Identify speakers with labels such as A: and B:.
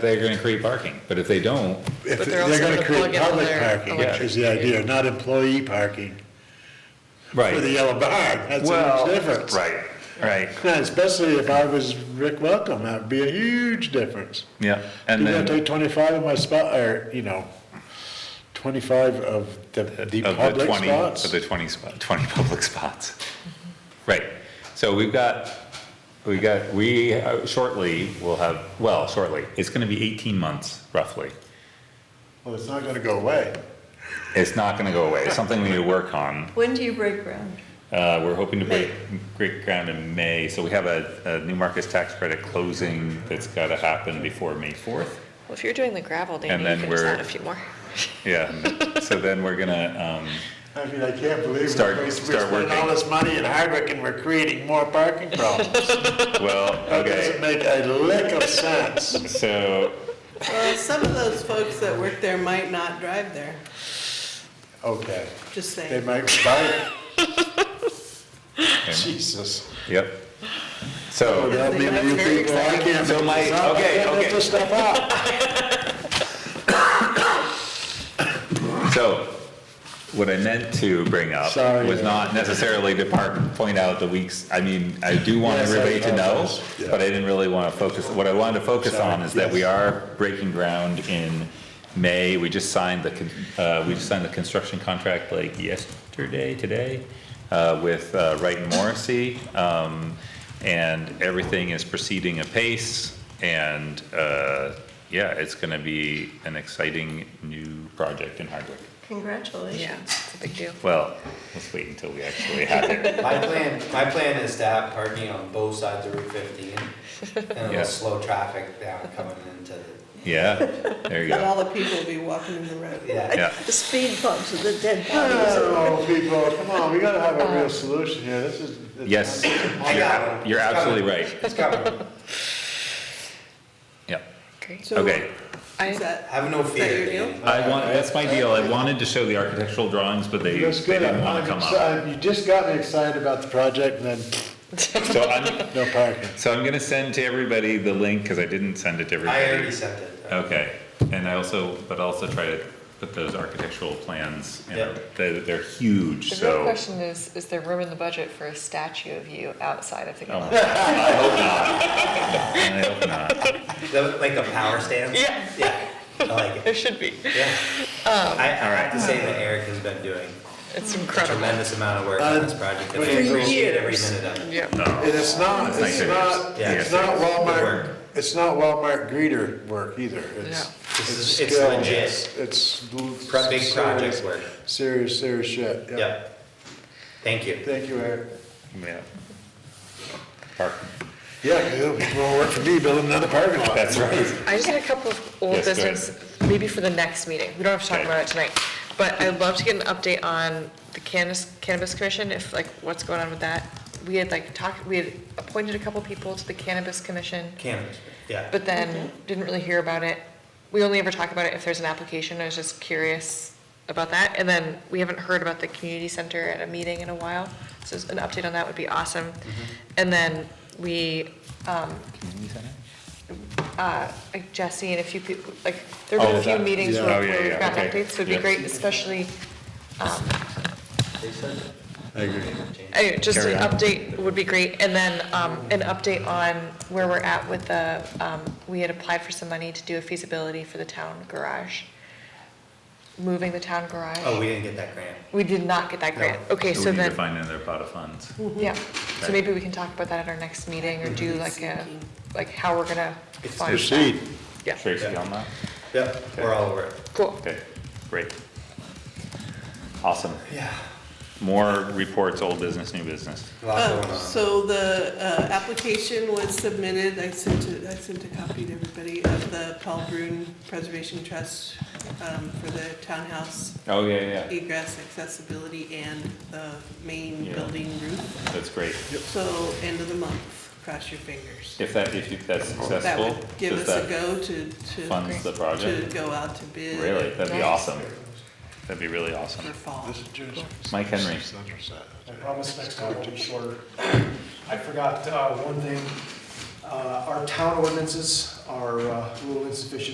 A: they're gonna create parking, but if they don't,
B: If
C: But they're
B: they're
C: also
B: gonna
C: gonna
B: create
C: plug in all
B: public
C: their
B: parking, is the idea, not employee parking for the
A: right,
B: yellow barn, that's a
A: well,
B: huge difference.
A: right, right,
B: Especially if I was Rick Welcome, that'd be a huge difference.
A: yeah,
B: You
A: and
B: gotta
A: then
B: take twenty-five of my spot, or, you know, twenty-five of the, the
A: of the
B: public
A: twenty, of
B: spots.
A: the twenty spot, twenty public spots. Right, so we've got, we got, we uh, shortly will have, well, shortly, it's gonna be eighteen months roughly.
B: Well, it's not gonna go away.
A: It's not gonna go away, it's something we need to work on,
C: When do you break ground?
A: Uh, we're hoping to
C: May.
A: break, break ground in May, so we have a, a new markets tax credit closing that's gotta happen before May fourth.
D: Well, if you're doing the gravel,
A: And
D: Danny,
A: then
D: you can just
A: we're-
D: add a few more.
A: Yeah, so then we're gonna, um,
B: I mean, I can't believe we
A: Start-
B: we
A: start
B: spend all
A: working.
B: this money in Hardwick and we're creating more parking problems.
A: well,
B: That doesn't
A: okay,
B: make a lick of sense.
A: so,
E: Well, some of those folks that work there might not drive there,
B: Okay,
E: just
B: they
E: saying.
B: might buy it. Jesus.
A: yep. So,
B: Yeah, maybe you
E: very
B: people, I can't
A: So
B: make
A: my-
B: this up. I
A: okay,
B: can't make
A: okay.
B: this stuff up.
A: so, what I meant to bring up
B: Sorry, uh,
A: was
B: yeah.
A: not necessarily to park, point out the weeks, I mean, I do want
B: Yes, I
A: everybody to know,
B: apologize. Yeah.
A: but I didn't really wanna focus, what I wanted to focus
B: Sorry,
A: on is that we
B: yes.
A: are breaking ground in May, we just signed the, con- uh, we just signed the construction contract like yesterday, today, uh, with, uh, Wright and Morrissey, um, and everything is proceeding apace, and, uh, yeah, it's gonna be an exciting new project in Hardwick.
C: Congratulations.
D: Yeah, it's a big deal.
A: Well, let's wait until we actually have it.
F: My plan, my plan is to have parking on both sides of Route fifteen, and
A: Yeah.
F: it'll slow traffic down coming into the,
A: Yeah, there you
E: But
A: go.
E: all the people will be walking in the road.
F: yeah.
A: Yeah.
C: The speed bumps are the dead bodies.
B: Oh, people, come on, we gotta have a real solution here, this is. it's-
A: Yes,
F: I got it.
A: you're absolutely right.
F: It's coming,
A: Yeah,
D: Great.
E: So,
A: okay.
E: Is
D: I,
E: that,
F: have no
E: is that
F: fear,
E: your deal?
F: Danny.
A: I want, that's my deal. I wanted to show the architectural drawings, but they,
B: That's
A: they
B: good,
A: didn't want
B: I'm,
A: to come up.
B: excited. you just got me excited about the project and then
A: So I'm,
B: no parking.
A: so I'm gonna send to everybody the link, cause I didn't send it to
F: I already
A: everybody.
F: sent it.
A: Okay, and I also, but I also try to put those architectural plans, in.
F: Yeah.
A: they're, they're huge,
D: the real
A: so.
D: question is, is there room in the budget for a statue of you outside of the
A: Oh, I
D: gallery?
A: hope not. I hope not.
F: The- Like the power stand?
D: Yeah.
F: Yeah, I like
D: There
F: it,
D: should be.
F: yeah. I, I have to say that Eric has been doing
D: It's
F: a
D: incredible.
F: tremendous amount of work on this project, and I
B: Three
F: appreciate every
B: years.
F: minute of it.
D: Yeah.
B: And it's not,
A: It's
B: it's
A: like
B: not,
F: Yeah.
B: it's not Walmart,
F: Work.
B: it's not Walmart greeter work either, it's.
D: Yeah.
F: This
B: it's
F: is- it's
B: skill,
F: legit.
B: it's- It's. l-
F: Pro- Big
B: serious-
F: project work,
B: Serious, serious shit, yeah.
F: yep. Thank you.
B: Thank you, Eric.
A: Yeah. Park.
B: Yeah, 'cause it'll be more work for me building another parking lot.
A: That's right.
D: I just had a couple of old
A: Yes, go ahead.
D: business, maybe for the next meeting. We don't have to talk
A: Okay.
D: about it tonight. But I'd love to get an update on the cannabis, cannabis commission, if like, what's going on with that. We had like talked, we had appointed a couple people to the cannabis commission.
F: Cannabis, yeah.
D: but then didn't really hear about it. We only ever talk about it if there's an application, I was just curious about that. And then we haven't heard about the community center at a meeting in a while, so an update on that would be awesome. And then we, um, uh, like Jesse and a few people, like, there've been
A: Oh,
D: a few
A: that-
D: meetings
A: yeah.
D: where
A: Oh, yeah,
D: where we've
A: yeah,
D: gotten
A: okay.
D: updates, so it'd be
A: Yeah.
D: great, especially, um,
F: They said it.
B: I agree.
D: Anyway, Oh, just
A: Carry
D: an
A: on.
D: update would be great, and then, um, an update on where we're at with the, um, we had applied for some money to do a feasibility for the town garage. Moving the town garage.
F: Oh, we didn't get that grant.
D: We did not get that grant,
F: No.
D: okay,
A: So
D: so
A: we need to
D: then,
A: find another pot of funds.
D: yeah,
A: Okay.
D: so
A: Mm-hmm.
D: maybe we can talk about that at our next meeting, or do like a, like how we're gonna
F: It's
D: fund that.
B: Proceed.
D: Yeah,
A: Tracy
F: Yeah.
A: on that?
F: Yep, we're all over it.
D: cool.
A: Okay, great. Awesome.
F: Yeah.
A: More reports, old business, new business.
F: Lots going
E: Oh,
F: on.
E: so the, uh, application was submitted, I sent it, I sent a copy to everybody of the Paul Brun Preservation Trust, um, for the townhouse
A: Oh, yeah, yeah,
E: egress accessibility and the main
A: Yeah.
E: building roof.
A: that's great.
E: So end of the month, cross your fingers.
A: If that, if you- that's
E: That
A: successful,
E: would give
A: does
E: us a
A: that
E: go to, to,
A: funds the
E: to
A: project?
E: go out to bid.
A: Really, that'd be
D: Nice.
A: awesome. That'd be really
E: For
A: awesome.
E: fall.
B: This is Jersey.
A: Mike Henry.
G: I promise next time will be shorter. I forgot uh, one thing, Uh, our town ordinances, are uh, a little insufficient